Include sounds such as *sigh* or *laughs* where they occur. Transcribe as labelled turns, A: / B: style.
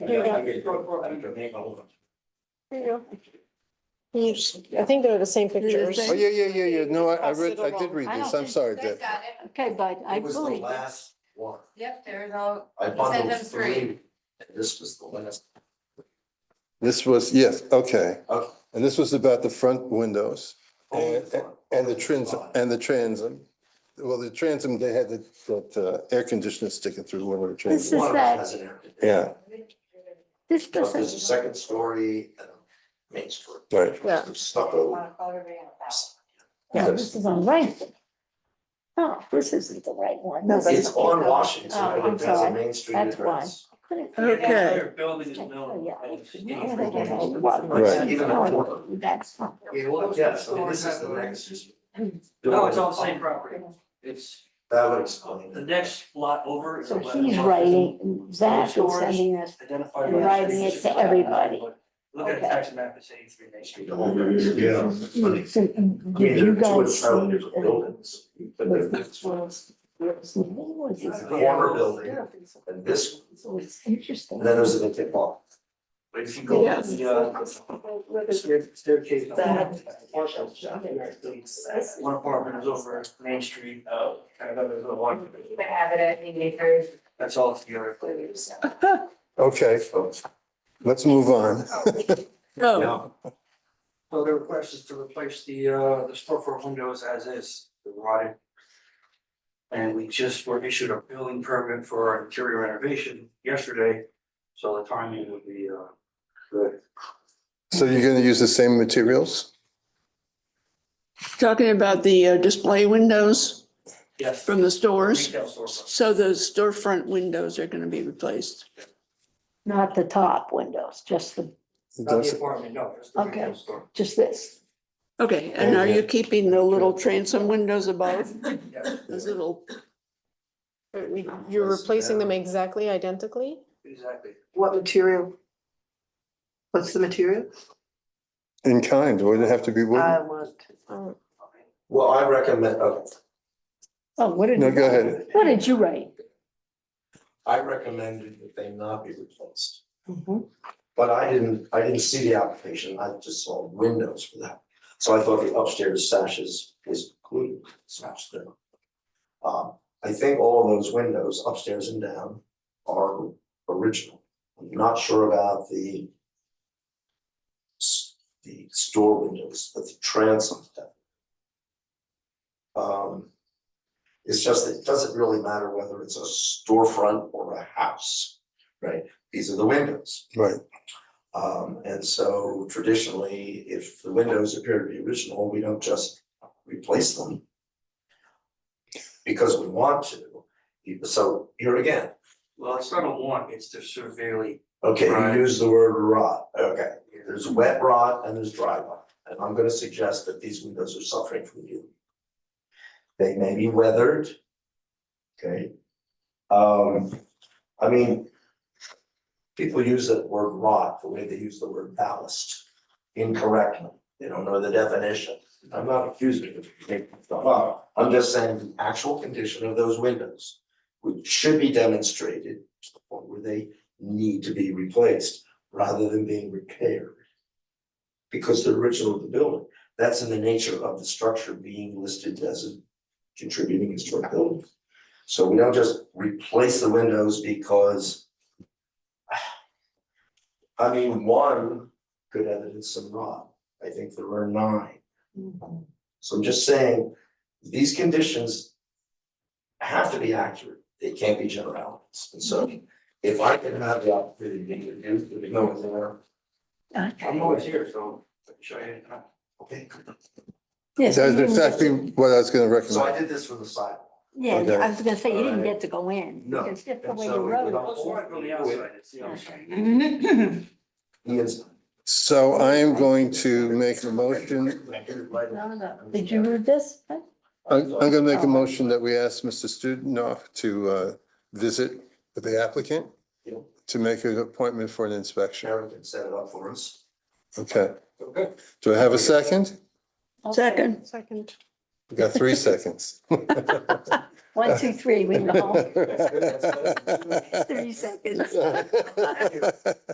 A: you go. There you go. Can you s- I think they're the same pictures.
B: same.
C: Oh, yeah, yeah, yeah, yeah. No, I, I read, I did read
B: I
C: this.
B: don't
C: I'm
B: think-
C: sorry,
D: They
C: Deb.
D: got it.
B: Okay, bud, I
A: It was the
B: believe.
A: last one.
D: Yep, there's all,
A: I
D: Send
A: bundled
D: them three.
A: three. and This was the last.
C: This was, yes, okay.
A: Okay.
C: And this was about the front windows and,
A: Oh,
C: and the trans, and the transom. Well, the transom, they had that, that uh, air conditioner sticking through one of the
B: This
C: transoms.
B: is
A: One of
B: that-
A: them has an air conditioner.
C: Yeah,
B: This
A: There's a
B: doesn't,
A: second story and a main story.
C: right.
B: Yeah.
A: Stucco.
B: yeah, this is on right. Oh, this isn't the right one.
E: No,
B: This
E: that's-
B: is-
A: It's on Washington,
B: Oh,
A: so
B: I'm
A: it has a
B: sorry.
A: main street
B: That's
A: address.
B: couldn't figure it out.
E: Okay,
F: Their building is
B: Oh,
F: known.
B: yeah.
F: and it's
B: Yeah,
F: named for
B: they
F: James
B: have
F: Wood.
B: one.
C: Right.
A: Even a quarter.
B: That's not.
A: Yeah, well, yeah, so this is the next.
F: No, it's on the same property. It's,
A: That would explain.
F: the next lot over is.
B: So
F: a letter.
B: he's writing, Zach is sending us,
F: Identified
B: and
F: by the
B: writing
F: street.
B: it to everybody.
F: Look at
B: Okay.
F: the tax map, it's eighty-three Main Street.
A: The whole thing is- Yeah. it's funny.
B: So,
A: I
B: did
A: mean, there
B: you
A: are two
B: guys
A: entirely
B: see?
A: different buildings. But
B: But
A: the
B: this
A: next one,
B: was, there was no one
A: It's
B: that's-
A: the corner building and this, one.
B: So it's interesting.
A: and then there's a tip off.
F: But if you go to the, uh, stair- staircase. One apartment is over Main Street, uh, kind of, there's a one,
D: they have it at the neighbors.
F: that's all together.
C: Okay, let's move on.
E: oh,
A: Yeah.
F: So the request is to replace the, uh, the storefront windows as is, they're rotted. And we just were issued a building permit for our interior renovation yesterday, so the timing would be, uh, good.
C: So you're gonna use the same materials?
E: talking about the uh, display windows
F: Yes.
E: from the stores.
F: Retail storefront.
E: So those storefront windows are going to be replaced.
B: Not the top windows, just the,
F: Not the apartment, no, just the retail
B: Okay.
F: store.
B: just this.
E: Okay, and are you keeping the little transom windows above?
F: Yes.
E: Those little,
A: You're
B: You're
A: replacing
B: replacing
A: them
B: them exactly identically?
F: Exactly.
G: What material? What's the material?
C: In kind, would it have to be
G: I
C: wooden?
G: want,
B: Oh,
A: Well, I recommend, oh. okay,
B: what did?
C: No,
B: you
C: go
B: write?
C: ahead.
B: What did you write?
A: I recommended that they not be replaced,
G: Mhm.
A: but I didn't, I didn't see the application, I just saw windows for that. So I thought the upstairs sashes is included, smashed down. Um, I think all of those windows upstairs and down are original. I'm not sure about the s- the store windows, but the transom stuff. Um, it's just, it doesn't really matter whether it's a storefront or a house, right? These are the windows.
C: Right,
A: Um, and so traditionally, if the windows appear to be original, we don't just replace them. Because we want to, so here again,
F: Well, it's not a one, it's the severely,
A: okay,
F: Right.
A: you use the word rot, okay, there's wet rot and there's dry rot. And I'm gonna suggest that these windows are suffering from you. They may be weathered. Okay. Um, I mean. People use that word rot the way they use the word ballast incorrectly. They don't know the definition. I'm not accusing you of making stuff up. I'm just saying the actual condition of those windows. Which should be demonstrated to the point where they need to be replaced rather than being repaired. Because the original of the building, that's in the nature of the structure being listed as a contributing historic building. So we don't just replace the windows because *sighs* I mean, one could evidence some rot. I think there were nine. So I'm just saying, these conditions have to be accurate. They can't be generalities. And so if I can have the opportunity to do, to know it's there,
F: I'm always here, so I uh, can show you.
A: okay.
C: that's
B: Yes, you didn't get
C: exactly
B: to-
C: what I was gonna
A: So I did
C: recommend.
A: this from the side.
B: Yeah,
C: Okay.
B: I was gonna say, you didn't
A: Alright.
B: get to go in.
A: No,
B: Because that's the
A: and
B: way
A: so
B: you
A: we
B: wrote
A: went
B: it.
A: on.
F: It's right from the outside, it's the outside.
B: *laughs*
A: The inside.
C: So I am going to make a motion,
B: No, no. Did you read this?
C: I'm, I'm gonna make a motion that we ask Mr. Studenoff to, uh, visit with the applicant
A: Yeah.
C: to make an appointment for an inspection.
A: Sharon can set it up for us.
C: Okay,
A: Okay.
C: do I have a second?
B: Okay,
E: Second.
B: Second.
H: We got three seconds.
C: One, two,
A: *laughs*
C: three, we know. *laughs*
B: That's good, that's good.
C: Thirty seconds.